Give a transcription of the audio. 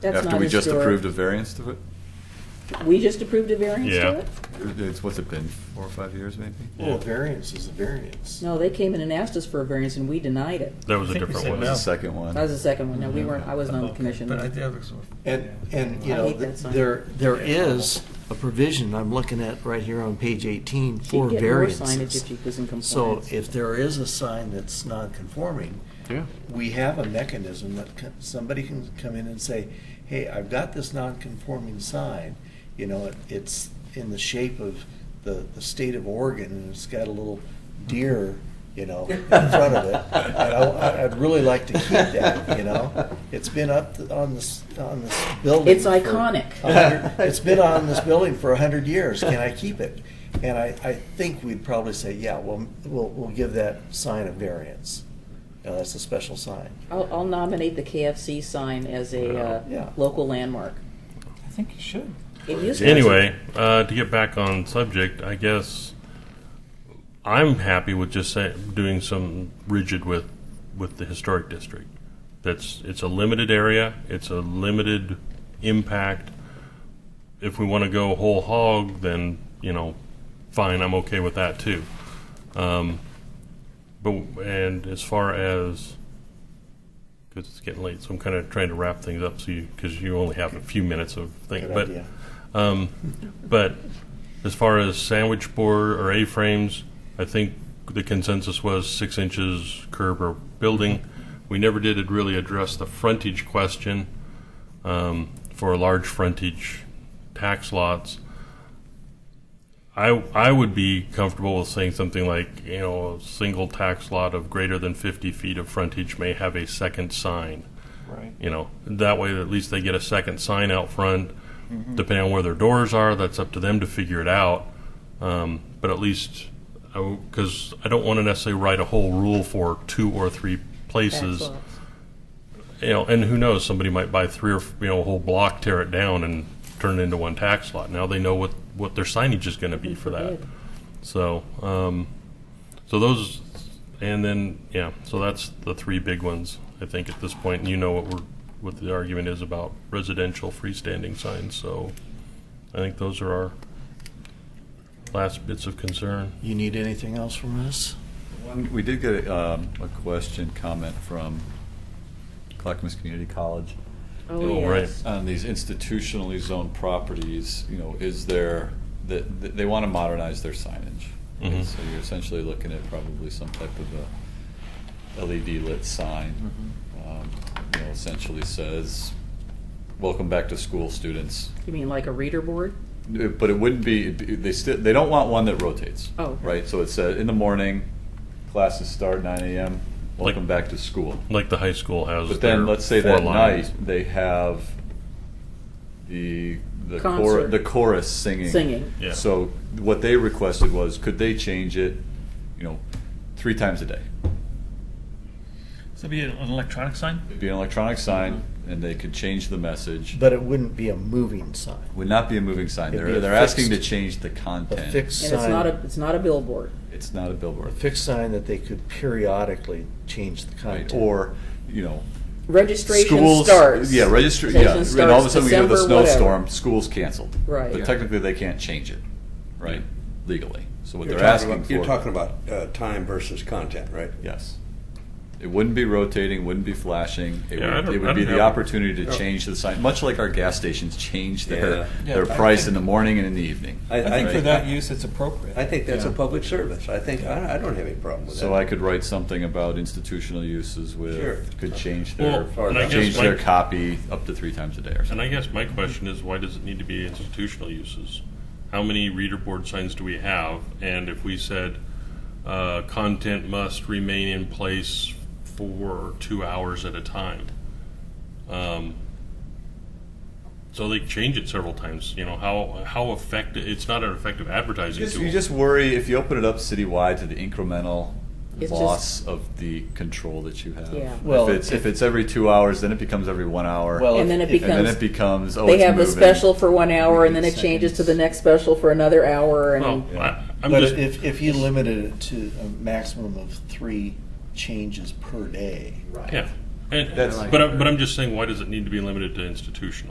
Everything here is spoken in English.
That's After not we a just store. approved a variance to it? We just approved a variance Yeah. to it? It's, what's it been, four or five years maybe? Well, a variance is a variance. No, they came in and asked us for a variance and we denied it. That was a I think we different said one. The no. second one? That was the second one. No, we weren't, I wasn't on the Okay, commission. But I did have a sort of- And, and, you I know, hate that th- sign. there, there is a provision I'm looking at right here on page 18 She'd for get more signage variances. if she was in So compliance. if there is a sign that's non-conforming, Yeah. we have a mechanism that c- somebody can come in and say, hey, I've got this non-conforming sign, you know, it- it's in the shape of the, the state of Oregon, and it's got a little deer, you know, in front of it. And I, I'd really like to keep that, you know? It's been up th- on this, on this building. It's for iconic. a hundred- It's been on this building for a hundred years, can I keep it? And I, I think we'd probably say, yeah, we'll, we'll, we'll give that sign a variance. You know, that's a special sign. I'll, I'll nominate the KFC sign as a Yeah. uh, local landmark. I think you should. It used to be- Anyway, uh, to get back on subject, I guess I'm happy with just say, doing some rigid with with the historic district. That's it's a limited area. It's a limited impact. If we want to go whole hog, then you know, fine. I'm okay with that too. Um, but and as far as because it's getting late, so I'm kind of trying to wrap things up. So you because you only have a few minutes of thing, Good but. idea. Um, but as far as sandwich board or A-frames, I think the consensus was six inches curb or building. We never did really address the frontage question um, for large frontage tax lots. I, I would be comfortable with saying something like, you know, a single tax lot of greater than 50 feet of frontage may have a second sign Right. you know that way at least they get a second sign out front depending on where their doors are that's up to them to figure it out um, but at least because I, don't want to necessarily write a whole rule for two or three places Backlots. you know and who knows somebody might buy three or f- you know a whole block tear it down and turn it into one tax lot now they know what what their signage is going to be for that forbid. so um, so those and then yeah so that's the three big ones i think at this point and you know what we're what the argument is about residential freestanding signs so i think those are our last bits of concern You need anything else from us? One- We did get um, a question, comment from Clackamas Community College. Oh, Oh, right. yes. on these institutionally zoned properties, you know, is there, that, that they want to modernize their signage. right? Mhm. So you're essentially looking at probably some type of a LED lit sign. Mm-hmm. um, You know, essentially says, welcome back to school, students. You mean like a reader board? Uh, But it wouldn't be, it'd be- they still, they don't want one that rotates. Oh. Right, so it said, in the morning, classes start nine AM, Like- welcome back to school. like the high school has But then, their let's say four that lines. night, they have the, the chorus, Concert. the chorus singing. Singing. Yeah. So what they requested was, could they change it, you know, three times a day? So it'd be an an electronic sign? It'd be an electronic sign, and they could change the message. But it wouldn't be a moving sign. Would not be a moving sign. It'd They're, be a they're asking to fixed- change the A content. fixed And it's not a, sign, it's not a billboard. It's not a a billboard. fixed sign that they could periodically change the Right, content. or, you know, Registration schools. starts. Yeah, register, yeah, Session and all of a starts sudden we have the December whatever. snowstorm, school's canceled. Right. But technically, they can't change it, right, legally. So what You're they're talking asking about- for. You're talking about uh, time versus content, right? Yes. It wouldn't be rotating, wouldn't be flashing. It Yeah, I would, don't- it I would be don't the have- opportunity to Oh. Yeah. change the sign, much like our gas stations change Yeah. their, Yeah. their price in the morning and in the evening. I- I think Right. for that use, it's appropriate. I think that's a Yeah. public service. I think, I I don't have any problem with that. So I could write something about institutional uses Sure. with, could change Well, their, and I guess change their my- copy up to three times a day or and something. i guess my question is why does it need to be institutional uses how many reader board signs do we have and if we said uh, content must remain in place for two hours at a time um, so they change it several times you know how how effective it's not an effective advertising You just, tool you just worry if you open it up citywide to the incremental It's loss of the control that you have. Yeah. Well, if it's if it's every two hours, then it becomes every one hour. Well, And then it if- and then becomes, it becomes oh, they it's have a moving. special for one hour and then it Seconds. changes to the next special for another hour well, and I, am But just if, if you limited it to a maximum of three changes per day. yeah And, That's- but, I- but I'm just saying, why does it need to be limited to institutional?